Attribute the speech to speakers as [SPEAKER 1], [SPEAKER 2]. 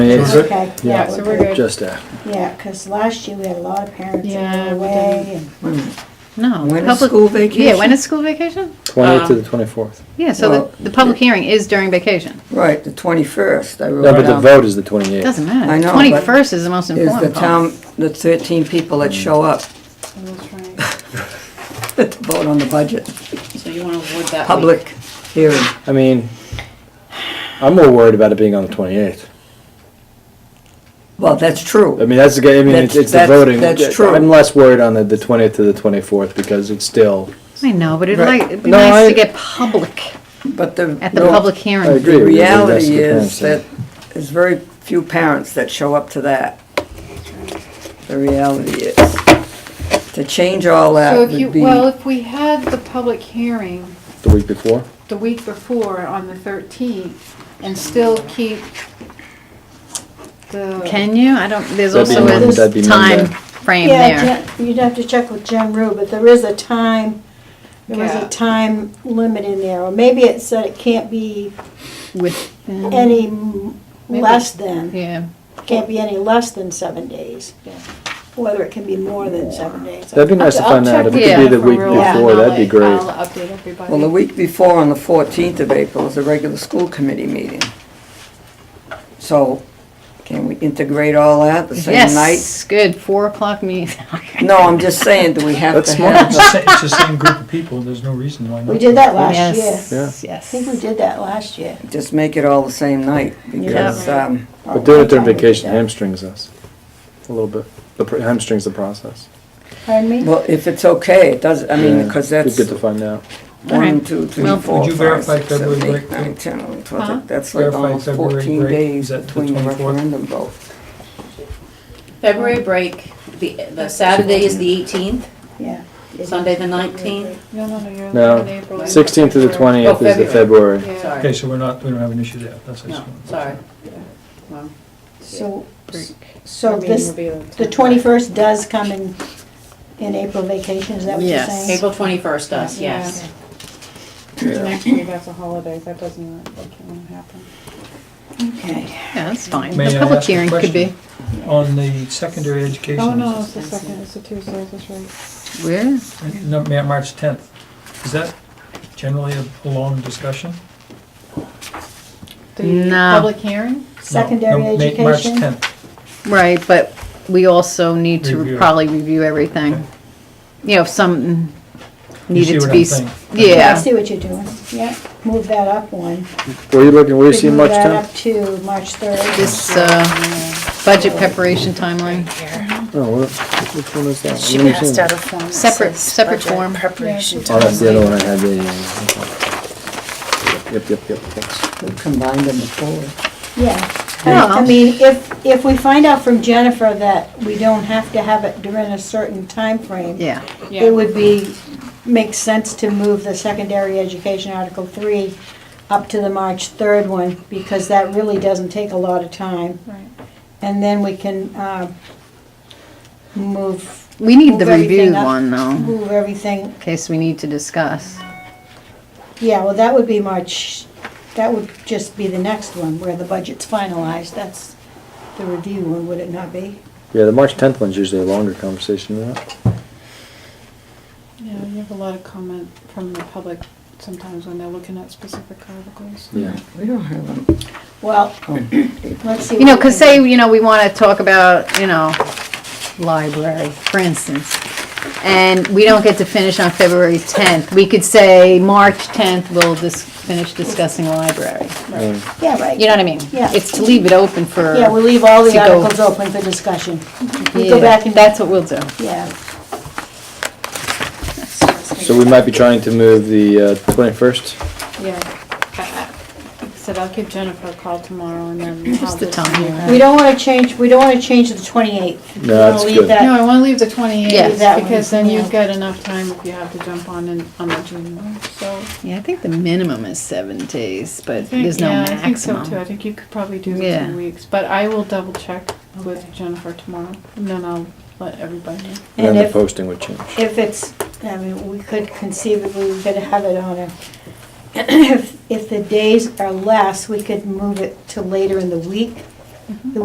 [SPEAKER 1] Yes.
[SPEAKER 2] Okay.
[SPEAKER 3] Yeah, so we're good.
[SPEAKER 1] Just
[SPEAKER 4] uh,
[SPEAKER 1] that.
[SPEAKER 2] Yeah, because last year we had a lot of parents that
[SPEAKER 3] Yeah,
[SPEAKER 2] were
[SPEAKER 3] we
[SPEAKER 2] away and
[SPEAKER 3] No.
[SPEAKER 5] When is
[SPEAKER 3] public-
[SPEAKER 5] school vacation?
[SPEAKER 3] Yeah, when is school vacation?
[SPEAKER 1] 28th to the 24th.
[SPEAKER 3] Yeah, so
[SPEAKER 5] Well-
[SPEAKER 3] the, the public hearing is during vacation.
[SPEAKER 5] Right, the 21st, I wrote
[SPEAKER 1] No, but the
[SPEAKER 5] down,
[SPEAKER 1] vote is the 28th.
[SPEAKER 3] Doesn't matter.
[SPEAKER 5] I know, but
[SPEAKER 3] Twenty-first is the most
[SPEAKER 5] Is the
[SPEAKER 3] important
[SPEAKER 5] town,
[SPEAKER 3] part.
[SPEAKER 5] the 13 people that show up
[SPEAKER 2] that's right.
[SPEAKER 5] to vote on the budget,
[SPEAKER 3] So you wanna avoid that
[SPEAKER 5] public hearing.
[SPEAKER 1] I mean, I'm more worried about it being on the 28th.
[SPEAKER 5] Well, that's
[SPEAKER 1] I
[SPEAKER 5] true.
[SPEAKER 1] mean, that's the, ga- I mean,
[SPEAKER 5] That's-
[SPEAKER 1] it's, it's the
[SPEAKER 5] that's-
[SPEAKER 1] voting.
[SPEAKER 5] that's
[SPEAKER 1] Yeah,
[SPEAKER 5] true.
[SPEAKER 1] I'm less worried on the, the 20th to the 24th because it's still,
[SPEAKER 3] I know, but it'd
[SPEAKER 5] Right.
[SPEAKER 3] like, it'd be
[SPEAKER 1] No,
[SPEAKER 3] nice
[SPEAKER 1] I-
[SPEAKER 3] to get public
[SPEAKER 5] But the.
[SPEAKER 3] at the
[SPEAKER 5] no,
[SPEAKER 3] public
[SPEAKER 1] I
[SPEAKER 3] hearing.
[SPEAKER 1] agree
[SPEAKER 5] The
[SPEAKER 1] with you. I think that's
[SPEAKER 5] reality
[SPEAKER 1] the
[SPEAKER 5] is that
[SPEAKER 1] concern.
[SPEAKER 5] there's very few parents that show up to that. The reality is. To change all that
[SPEAKER 6] So
[SPEAKER 5] would
[SPEAKER 6] if you,
[SPEAKER 5] be.
[SPEAKER 6] well, if we had the public hearing
[SPEAKER 1] The week before?
[SPEAKER 6] the week before on the thirteenth and still keep the.
[SPEAKER 3] Can you? I don't, there's
[SPEAKER 1] That'd be
[SPEAKER 3] also
[SPEAKER 1] Mon- that'd
[SPEAKER 3] a
[SPEAKER 1] be
[SPEAKER 3] time
[SPEAKER 1] Monday.
[SPEAKER 3] frame there.
[SPEAKER 2] Yeah, Jim- you'd have to check with Jim Rue, but there is a time, there was
[SPEAKER 6] Yeah.
[SPEAKER 2] a time limit in there. Or maybe it said it can't be
[SPEAKER 3] With,
[SPEAKER 2] any m-
[SPEAKER 6] Maybe.
[SPEAKER 2] less than,
[SPEAKER 3] yeah,
[SPEAKER 2] can't be any less than seven days. Whether it can be more than seven days.
[SPEAKER 1] That'd be nice to
[SPEAKER 6] I'll- I'll
[SPEAKER 1] find out.
[SPEAKER 6] check uh,
[SPEAKER 1] If
[SPEAKER 3] with
[SPEAKER 1] it could be
[SPEAKER 3] Jennifer
[SPEAKER 1] the week
[SPEAKER 6] rules and
[SPEAKER 1] before,
[SPEAKER 6] I'll
[SPEAKER 1] that'd be
[SPEAKER 6] let-
[SPEAKER 1] great.
[SPEAKER 6] I'll update everybody.
[SPEAKER 5] Well, the week before, on the 14th of April, is a regular school committee meeting. So can we integrate all that the same night?
[SPEAKER 3] yes, good, four o'clock meeting.
[SPEAKER 5] No, I'm just saying, do we have
[SPEAKER 1] That's
[SPEAKER 5] to
[SPEAKER 1] smart.
[SPEAKER 5] have?
[SPEAKER 4] It's the sa- it's the same group of people, there's no reason why not.
[SPEAKER 2] We did that last
[SPEAKER 3] Yes,
[SPEAKER 2] year.
[SPEAKER 1] Yeah.
[SPEAKER 2] I
[SPEAKER 3] yes.
[SPEAKER 2] think we did that last year.
[SPEAKER 5] Just make it all the same night because, um,
[SPEAKER 1] But doing it during
[SPEAKER 2] Okay.
[SPEAKER 1] vacation hamstrings us a little bit. The pr- hamstrings the process.
[SPEAKER 2] Pardon me?
[SPEAKER 5] well, if it's okay, it does, I mean, because
[SPEAKER 1] Yeah,
[SPEAKER 5] that's
[SPEAKER 1] It'd be good to find out.
[SPEAKER 5] one, two, three,
[SPEAKER 3] Well,
[SPEAKER 5] four,
[SPEAKER 4] Would you
[SPEAKER 5] five,
[SPEAKER 4] verify
[SPEAKER 5] six, seven,
[SPEAKER 4] February
[SPEAKER 5] eight,
[SPEAKER 4] break?
[SPEAKER 5] nine, 10, 11, 12,
[SPEAKER 6] Huh?
[SPEAKER 5] That's like
[SPEAKER 4] Verify
[SPEAKER 5] almost
[SPEAKER 4] February
[SPEAKER 5] 14
[SPEAKER 4] break,
[SPEAKER 5] days
[SPEAKER 4] is that the
[SPEAKER 5] between the
[SPEAKER 4] 24th?
[SPEAKER 5] referendum vote.
[SPEAKER 7] February break, the, the Saturday is the eighteenth,
[SPEAKER 2] Yeah.
[SPEAKER 7] Sunday the nineteenth.
[SPEAKER 6] No, no, no, you're
[SPEAKER 1] No,
[SPEAKER 6] looking at April.
[SPEAKER 1] 16th to the 20th is the
[SPEAKER 2] Oh,
[SPEAKER 1] February.
[SPEAKER 6] Yeah.
[SPEAKER 4] Okay,
[SPEAKER 7] Sorry,
[SPEAKER 4] so we're not, we don't have an issue there, that's. I just
[SPEAKER 7] no,
[SPEAKER 4] wanted to-
[SPEAKER 7] sorry.
[SPEAKER 2] So,
[SPEAKER 3] Break.
[SPEAKER 2] so this, the twenty-first does come in, in April vacation, is that what you're
[SPEAKER 3] Yes.
[SPEAKER 2] saying?
[SPEAKER 7] April twenty-first does, yes.
[SPEAKER 6] Next week has a holiday, that doesn't, that can't happen.
[SPEAKER 2] Okay.
[SPEAKER 3] Yeah, that's fine.
[SPEAKER 4] May
[SPEAKER 3] The
[SPEAKER 4] I
[SPEAKER 3] public
[SPEAKER 4] ask a
[SPEAKER 3] hearing could be,
[SPEAKER 4] question? On the secondary
[SPEAKER 6] Oh,
[SPEAKER 4] education,
[SPEAKER 6] no, it's the second, it's the Tuesday, that's right.
[SPEAKER 3] where?
[SPEAKER 4] no, Ma- March 10th, is that generally a long discussion?
[SPEAKER 6] The
[SPEAKER 3] No.
[SPEAKER 6] public hearing?
[SPEAKER 4] No,
[SPEAKER 2] Secondary
[SPEAKER 4] no, Ma-
[SPEAKER 2] education?
[SPEAKER 4] March 10th,
[SPEAKER 3] Right, but we also need
[SPEAKER 4] Review
[SPEAKER 3] to
[SPEAKER 4] it.
[SPEAKER 3] probably review everything. You know, if something
[SPEAKER 4] You see
[SPEAKER 3] needed to
[SPEAKER 4] what
[SPEAKER 3] be,
[SPEAKER 4] I'm
[SPEAKER 3] s-
[SPEAKER 4] saying?
[SPEAKER 2] I
[SPEAKER 3] yeah,
[SPEAKER 2] see what you're doing, yeah, move that up one.
[SPEAKER 1] Were you looking, were you seeing
[SPEAKER 2] Move
[SPEAKER 1] much
[SPEAKER 2] that
[SPEAKER 1] time?
[SPEAKER 2] up to March third.
[SPEAKER 3] this, uh, budget preparation timeline,
[SPEAKER 1] Oh, what, which one is that?
[SPEAKER 8] She
[SPEAKER 1] Let me
[SPEAKER 8] passed
[SPEAKER 1] see.
[SPEAKER 8] out a form. that
[SPEAKER 3] Separate-
[SPEAKER 8] says
[SPEAKER 3] separate
[SPEAKER 8] budget
[SPEAKER 3] form.
[SPEAKER 8] Preparation.
[SPEAKER 1] Oh, that's the
[SPEAKER 8] time.
[SPEAKER 1] other one I had, yeah, yeah, yeah. okay. Yep, yep, yep, thanks.
[SPEAKER 5] We combined them before.
[SPEAKER 2] Yeah,
[SPEAKER 3] Yeah.
[SPEAKER 2] I mean, if, if we find out from Jennifer that we don't have to have it during a certain time frame,
[SPEAKER 3] yeah.
[SPEAKER 2] It would be, make sense to move the secondary education Article Three up to the March third one, because that really doesn't take a lot of time.
[SPEAKER 6] Right.
[SPEAKER 2] And then we can, uh, move,
[SPEAKER 3] We need the
[SPEAKER 2] Move everything
[SPEAKER 3] review
[SPEAKER 2] up.
[SPEAKER 3] one though,
[SPEAKER 2] move everything,
[SPEAKER 3] in case we need to discuss.
[SPEAKER 2] yeah, well, that would be March, that would just be the next one, where the budget's finalized, that's the review one, would it not be?
[SPEAKER 1] Yeah, the March tenth one's usually a longer conversation than that.
[SPEAKER 6] Yeah, you have a lot of comment from the public sometimes when they're looking at specific articles.
[SPEAKER 1] Yeah.
[SPEAKER 5] We don't have them.
[SPEAKER 2] Well, let's see.
[SPEAKER 3] You know,
[SPEAKER 2] what we
[SPEAKER 3] cause
[SPEAKER 2] can
[SPEAKER 3] say, you know, we wanna talk about, you know, library, for instance. And we don't get to finish on February tenth. We could say March tenth, we'll just finish discussing the library.
[SPEAKER 1] Yeah.
[SPEAKER 2] do. Yeah, right.
[SPEAKER 3] You know what I mean?
[SPEAKER 2] Yeah.
[SPEAKER 3] It's to leave it open for.
[SPEAKER 2] Yeah, we leave all
[SPEAKER 3] to
[SPEAKER 2] the
[SPEAKER 3] go-
[SPEAKER 2] articles open for discussion. We go
[SPEAKER 3] Yeah,
[SPEAKER 2] back and,
[SPEAKER 3] That's what we'll do.
[SPEAKER 2] yeah.
[SPEAKER 1] So we might be trying to move the uh, twenty-first.
[SPEAKER 6] Yeah. I- I like I Said I'll give Jennifer a call tomorrow and then. I'll
[SPEAKER 3] Just the
[SPEAKER 6] just-
[SPEAKER 3] time.
[SPEAKER 2] We don't wanna change, we don't wanna change the twenty-eighth.
[SPEAKER 1] No, that's good.
[SPEAKER 6] No, I wanna leave the twenty-eighth,
[SPEAKER 3] Yes.
[SPEAKER 2] That one,
[SPEAKER 6] because then
[SPEAKER 2] yeah.
[SPEAKER 6] you've got enough time if you have to jump on in, on the June one, so.
[SPEAKER 3] Yeah, I think the minimum is seven days,
[SPEAKER 6] I
[SPEAKER 3] but
[SPEAKER 6] think-
[SPEAKER 3] there's no
[SPEAKER 6] yeah, I think so, too. I
[SPEAKER 3] maximum.
[SPEAKER 6] think you could probably do the
[SPEAKER 3] Yeah.
[SPEAKER 6] two weeks, but I will double check with
[SPEAKER 3] Okay.
[SPEAKER 6] Jennifer tomorrow, and then I'll let everybody know.
[SPEAKER 1] Then
[SPEAKER 2] And
[SPEAKER 1] the
[SPEAKER 2] if,
[SPEAKER 1] posting would change.
[SPEAKER 2] if it's, I mean, we could conceivably, we could have it on a, if, if the days are less, we could move it to later in the week.